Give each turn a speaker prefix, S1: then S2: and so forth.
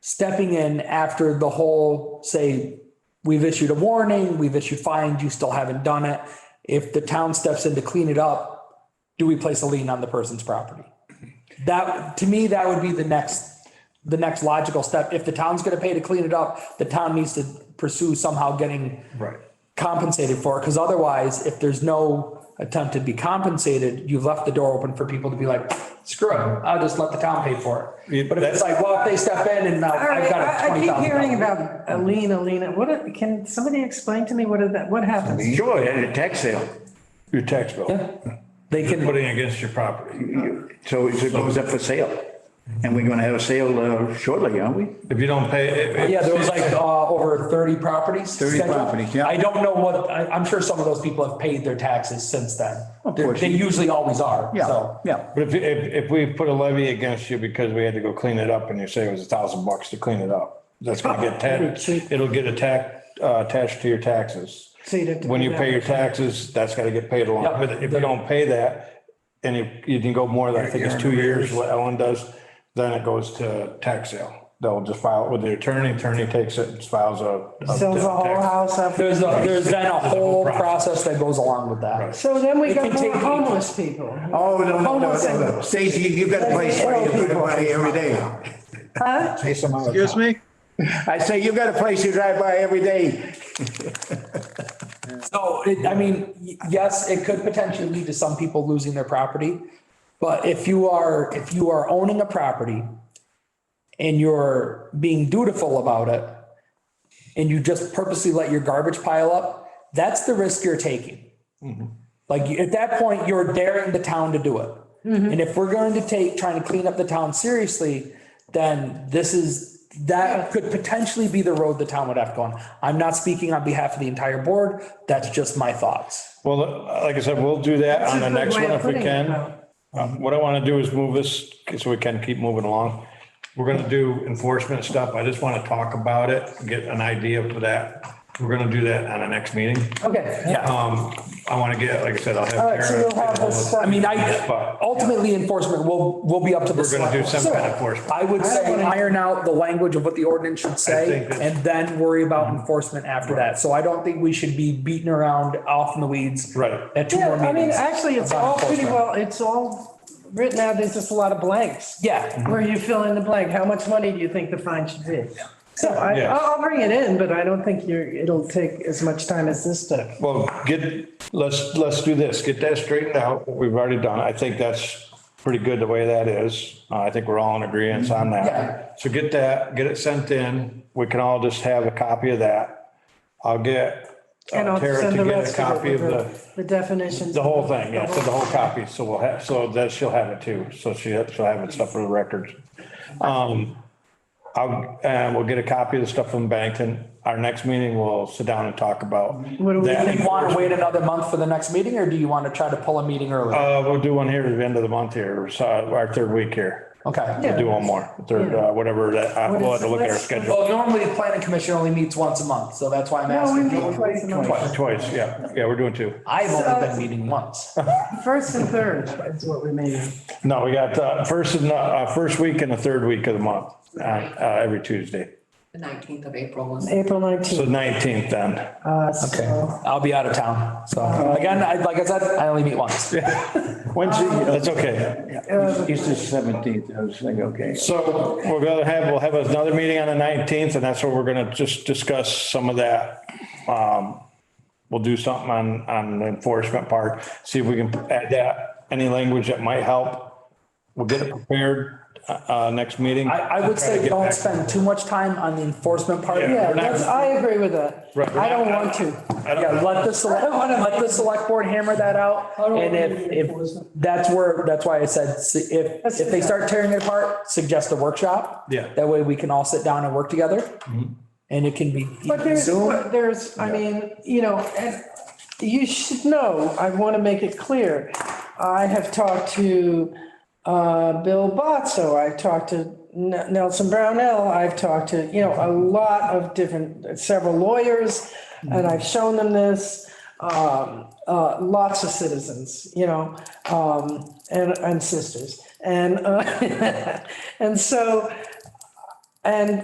S1: stepping in after the whole, say, we've issued a warning, we've issued fines, you still haven't done it. If the town steps in to clean it up, do we place a lien on the person's property? That, to me, that would be the next, the next logical step. If the town's gonna pay to clean it up, the town needs to pursue somehow getting
S2: Right.
S1: compensated for it, because otherwise, if there's no attempt to be compensated, you've left the door open for people to be like, screw it, I'll just let the town pay for
S2: Yeah,
S1: it. But if it's
S2: that's-
S1: like, well, if they step in and now
S3: All
S1: I've
S3: right,
S1: got a
S3: I I
S1: twenty
S3: keep
S1: thousand.
S3: hearing about Alina, Alina, what, are- can somebody explain to me what is that, what happens?
S4: Sure, at a tax sale.
S2: Your tax bill.
S1: They
S2: You're
S1: can,
S2: putting against your property.
S4: So it goes up for sale. And we're gonna have a sale uh, shortly, aren't we?
S2: If you don't pay. if- if-
S1: yeah, there was like, uh, over thirty properties.
S4: 30
S1: scheduled.
S4: properties, yeah.
S1: I don't know what, I, I'm sure some of those people have paid their taxes since then.
S4: Of
S1: They-
S4: course.
S1: They usually always are, so.
S4: yeah.
S2: But if, if, if we put a levy against you because we had to go clean it up and you say it was a thousand bucks to clean it up, that's gonna get taxed, it'll get attacked, uh, attached to your taxes.
S3: So you'd have to
S2: When
S3: do
S2: you
S3: that.
S2: pay your taxes, that's gotta get paid along.
S1: Yep.
S2: But if you don't pay that and you, you can go more than, I think it's two years, what Ellen does, then it goes to tax sale. They'll just file it with the attorney, attorney takes it, and files a. a
S3: Sells the whole
S2: tax-
S3: house up.
S1: There's, a- there's then a whole
S2: process.
S1: process that goes along with that.
S3: So then we
S1: It can
S3: got more
S1: take-
S3: homeless people.
S4: Oh, no, no, no,
S3: Homeless
S4: no, no.
S3: and-
S4: Stacy, you- you've got to play
S3: Well,
S4: square to
S3: people-
S4: everybody every day.
S3: Huh?
S4: Say some other
S5: Excuse
S4: time.
S5: me?
S4: I say you've got a place you drive by every day.
S1: So it, I mean, y- yes, it could potentially lead to some people losing their property. But if you are, if you are owning a property and you're being dutiful about it and you just purposely let your garbage pile up, that's the risk you're taking. Like at that point, you're daring the town to do it.
S3: Mm-hmm.
S1: And if we're going to take trying to clean up the town seriously, then this is, that could potentially be the road the town would have to go on. I'm not speaking on behalf of the entire board. That's just my thoughts.
S2: Well, like I said, we'll do that
S3: That's
S2: on
S3: a
S2: the
S3: good
S2: next
S3: way
S2: one
S3: of
S2: if we
S3: putting it,
S2: can.
S3: though.
S2: Um, What I want to do is move this so we can keep moving along. We're going to do enforcement stuff. I just want to talk about it, get an idea for that. We're going to do that on the next meeting.
S3: Okay.
S1: Yeah.
S2: Um, I want to get, like I said, I'll have.
S3: All right, so
S2: Karen-
S3: you'll have this stuff.
S1: I mean, I, ultimately enforcement will, will be up to the.
S2: We're gonna do
S1: select board.
S2: some kind of enforcement.
S1: I would say iron out the language of what the ordinance should say
S2: think Mm-hmm. that's-
S1: and then worry about enforcement after that. So I don't think we should be beating around off in the weeds.
S2: Right.
S1: At two
S3: Yeah,
S1: more
S3: I mean,
S1: meetings.
S3: actually, it's
S1: about
S3: all pretty
S1: enforcement.
S3: well, it's all written out, there's just a lot of blanks.
S1: Yeah.
S3: Where you fill in the blank, how much money do you think the fine should be? So I,
S2: Yeah.
S3: I'll I'll bring it in, but I don't think you're, it'll take as much time as this stuff.
S2: Well, get, let's, let's do this. Get that straightened out. what We've already done. it. I think that's pretty good the way that is. Uh, I think we're all in agreement on
S1: Yeah.
S2: that. So get that, get it sent in. We can all just have a copy of that. I'll get
S3: And
S2: uh,
S3: I'll
S2: Tara
S3: send
S2: to
S3: the
S2: get a
S3: rest of
S2: copy
S3: it
S2: of
S3: with
S2: the,
S3: The definitions.
S2: the whole thing, yeah, so the whole copy, so we'll have, so that she'll have it too, so she, she'll have it stuff for the records. Um, I'll, and we'll get a copy of the stuff from Bennington, our next meeting, we'll sit down and talk about
S3: What do we
S2: that.
S1: Do you want to wait another month for the next meeting or do you want to try to pull a meeting early?
S2: Uh, we'll do one here at the end of the month here, so our third week here,
S1: Okay.
S2: we'll do one more, third, uh, whatever, that- uh,
S3: What
S2: we'll
S3: is
S2: have to look at our
S3: this?
S2: schedule.
S1: Well, normally the planning commission only meets once a month, so that's why I'm
S3: No, we
S1: asking.
S3: meet twice a month.
S2: Twice, yeah, yeah, we're doing two.
S1: I've only been meeting once.
S3: First and third is what we made.
S2: No, we got, uh, first and, uh, first week and the third week of the month, uh, uh, every Tuesday.
S6: The nineteenth of April was.
S3: April
S2: So
S3: 19th.
S2: nineteenth then.
S3: Uh, so-
S1: Okay. I'll be out of town. So
S2: Uh,
S1: again, I, like I said, I only meet once.
S2: Wednesday, that's okay.
S4: It's the seventeenth, I was like, okay.
S2: So we're gonna have, we'll have another meeting on the nineteenth and that's where we're gonna just discuss some of that. Um, We'll do something on, on the enforcement part, see if we can add that, any language that might help. We'll get it prepared, uh, uh, next meeting.
S1: I, I would
S2: Try to
S1: say
S2: get
S1: don't
S2: back.
S1: spend too much time on the enforcement part.
S2: Yeah.
S3: Yeah,
S2: We're not-
S3: that's, I agree with that.
S2: Right, we're
S3: I don't
S2: not-
S3: want to.
S2: I don't-
S1: Yeah, let the select, let the select board hammer that out. And if, if, that's where, that's why I said, s- if,
S3: Let's
S1: if
S3: do
S1: they
S3: that.
S1: start tearing it apart, suggest a workshop.
S2: Yeah. Mm-hmm.
S1: That way we can all sit down and work together. And it can be
S3: But there's,
S1: Zoom.
S3: but there's, I mean, you know, and you should know, I want to make it clear. I have talked to uh, Bill Botso, I've talked to N- Nelson Brownell, I've talked to, you know, a lot of different, several lawyers, and I've shown them this, um, uh, lots of citizens, you know, um, and, and sisters. And, uh, and so, and